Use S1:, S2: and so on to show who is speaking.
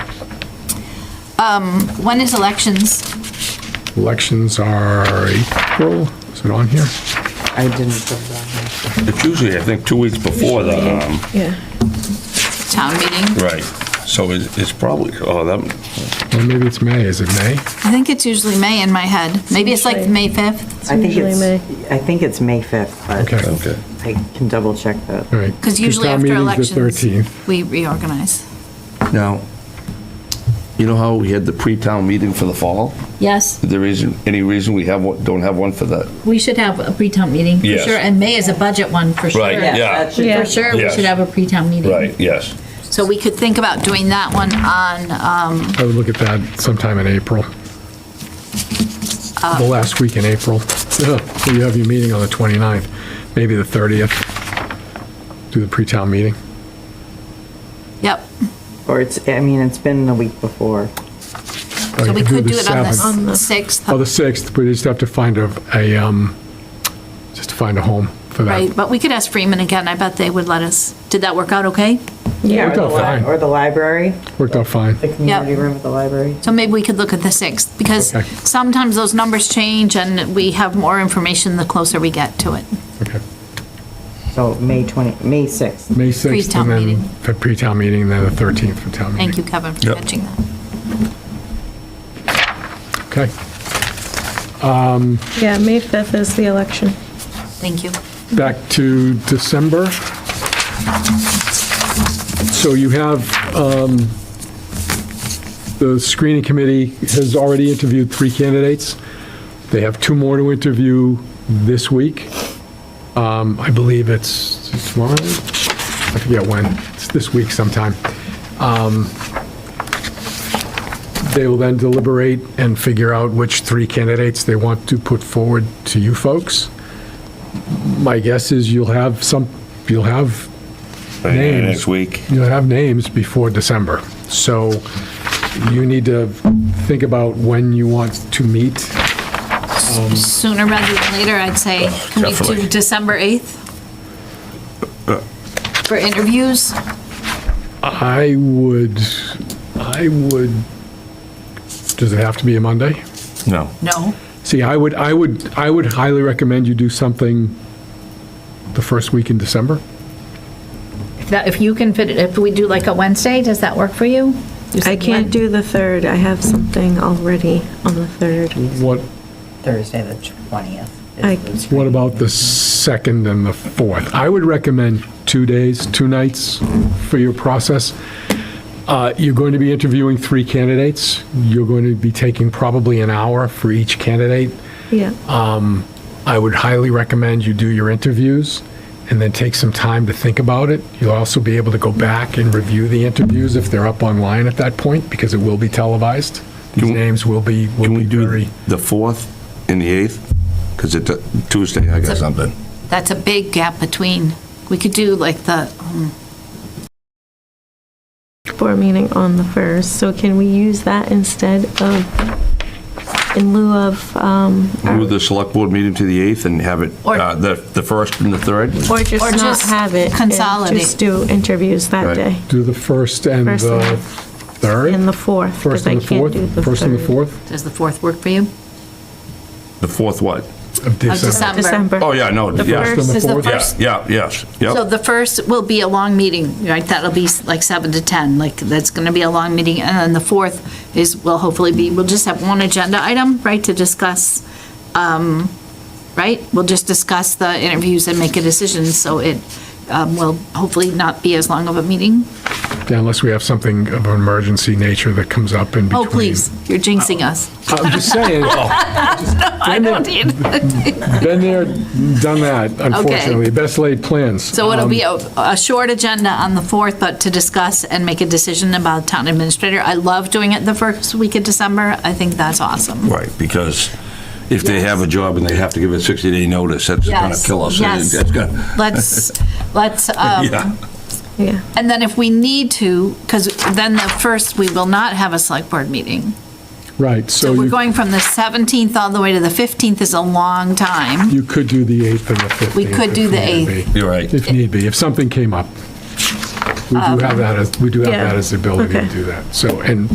S1: When is elections?
S2: Elections are April, is it on here?
S3: I didn't put it on there.
S4: It's usually, I think, two weeks before the, um,
S5: Yeah.
S1: Town meeting?
S4: right, so it's it's probably, oh, that,
S2: Or maybe it's May, is it May?
S1: I think it's usually May in my head. Maybe it's like
S5: Usually.
S1: May 5th,
S3: I think
S5: usually
S3: it's,
S5: May.
S3: I think it's May 5th, but
S2: Okay,
S4: okay.
S3: I can double check that.
S2: all right.
S1: because usually
S2: town
S1: after
S2: meeting's the
S1: elections,
S2: 13th.
S1: we reorganize.
S4: Now, you know how we had the pre-town meeting for the fall?
S5: Yes,
S4: There isn't any reason we have, one- don't have one for that?
S1: We should have a pre-town meeting, for
S4: Yes.
S1: sure, and May is a budget one, for sure.
S4: Right, yeah.
S3: That should-
S5: Yeah.
S1: For sure, we
S4: Yes.
S1: should have a pre-town meeting.
S4: yes.
S1: So we could think about doing that one on, um,
S2: I would look at that sometime in April.
S1: Uh.
S2: The last week in April. Yeah, So you have your meeting on the 29th, maybe the 30th. Do the pre-town meeting.
S1: yep,
S3: Or it's, I mean, it's been the week before.
S2: Or
S1: so
S2: you
S1: we could do it on the
S2: 7th.
S5: On the-
S1: 6th.
S2: Oh, the 6th, but you just have to find a, a, um, just to find a home for
S1: Right,
S2: that.
S1: but we could ask Freeman again, I bet they would let us. Did that work out okay?
S3: Yeah, or the
S2: out
S3: li-
S2: fine.
S3: or the library,
S2: Worked out fine.
S3: the community room at the library.
S1: So maybe we could look at the 6th, because
S2: Okay.
S1: sometimes those numbers change and we have more information the closer we get to it.
S2: Okay.
S3: So May 20, May 6th.
S2: May 6th
S1: Pre-town
S2: and then
S1: meeting.
S2: for pre-town meeting, then the 13th for town meeting.
S1: Thank you, Kevin, for
S4: Yep.
S1: catching that.
S2: Okay.
S5: yeah, May 5th is the election.
S1: Thank you.
S2: back to December. So you have, um, the screening committee has already interviewed three candidates. They have two more to interview this week. Um, I believe it's tomorrow? I forget when. It's this week sometime. Um, They will then deliberate and figure out which three candidates they want to put forward to you folks. My guess is you'll have some, you'll have, Names.
S4: Next week.
S2: you'll have names before December. So you need to think about when you want to meet.
S1: Sooner rather than later, I'd say, can we do
S4: definitely.
S1: December 8th? For interviews?
S2: I would, I would, does it have to be a Monday?
S4: No.
S1: No.
S2: See, I would, I would, I would highly recommend you do something the first week in December.
S1: If that- If you can fit it, if we do like a Wednesday, does that work for you?
S5: I can't do the 3rd, I have something already on the 3rd.
S2: What,
S3: Thursday, the 20th.
S5: I-
S2: what about the second and the fourth? I would recommend two days, two nights for your process. Uh, You're going to be interviewing three candidates. You're going to be taking probably an hour for each candidate.
S5: Yeah,
S2: I would highly recommend you do your interviews and then take some time to think about it. You'll also be able to go back and review the interviews if they're up online at that point, because it will be televised. These
S4: Can-
S2: names will be, will
S4: Can
S2: be
S4: we do
S2: very,
S4: the 4th and the 8th? Because it's a Tuesday, I got something.
S1: That's a big gap between, we could do like the, um,
S5: for a meeting on the 1st, so can we use that instead of, in lieu of, um, our-
S4: Move the select board meeting to the 8th and have it,
S1: Or-
S4: uh, the the 1st and the 3rd?
S5: or just
S1: Or
S5: not
S1: just
S5: have it? and
S1: consolidate.
S5: Just do interviews that
S4: Right.
S5: day,
S2: do the first and
S5: First
S2: the
S5: and the-
S2: third?
S5: and the 4th,
S2: First
S5: because I
S2: and the
S5: can't do the
S2: fourth? First and the
S5: 3rd.
S2: fourth
S1: does the 4th work for you?
S4: The 4th what?
S2: of December.
S1: December.
S5: December.
S4: Oh, yeah, no,
S5: The
S4: yeah.
S5: first-
S2: and the
S1: Is the
S2: fourth?
S4: Yeah,
S1: first-
S4: yeah, yes,
S1: So
S4: yep.
S1: the first will be a long meeting, right? That'll be like 7 to 10, like, that's going to be a long meeting. And then the 4th is, will hopefully be, we'll just have one agenda item, right, to discuss, um, right? We'll just discuss the interviews and make a decision, so it um, will hopefully not be as long of a meeting.
S2: Yeah, Unless we have something of an emergency nature that comes up in between.
S1: Oh, please, you're jinxing us.
S2: I'm just saying.
S1: I don't need,
S2: Been there, done that, unfortunately. Best laid plans.
S1: so it'll
S2: Um,
S1: be a, a short agenda on the 4th, but to discuss and make a decision about town administrator. I love doing it the first week of December. I think that's awesome.
S4: Right, because if they have a job and they have to give a 60-day notice, that's going to
S1: Yes,
S4: kill us.
S1: yes.
S4: That's gonna-
S1: Let's, let's, um,
S4: Yeah.
S5: Yeah.
S1: and then if we need to, because then the first, we will not have a select board meeting.
S2: Right,
S1: So
S2: so
S1: we're
S2: you,
S1: going from the 17th all the way to the 15th is a long time.
S2: you could do the 8th and the 15th.
S1: We could do
S2: if
S1: the
S2: need be.
S4: You're right.
S2: If need be, if something came up. We do have that as, we do have
S5: Yeah.
S2: that as the ability to
S5: Okay.
S2: do that. So, and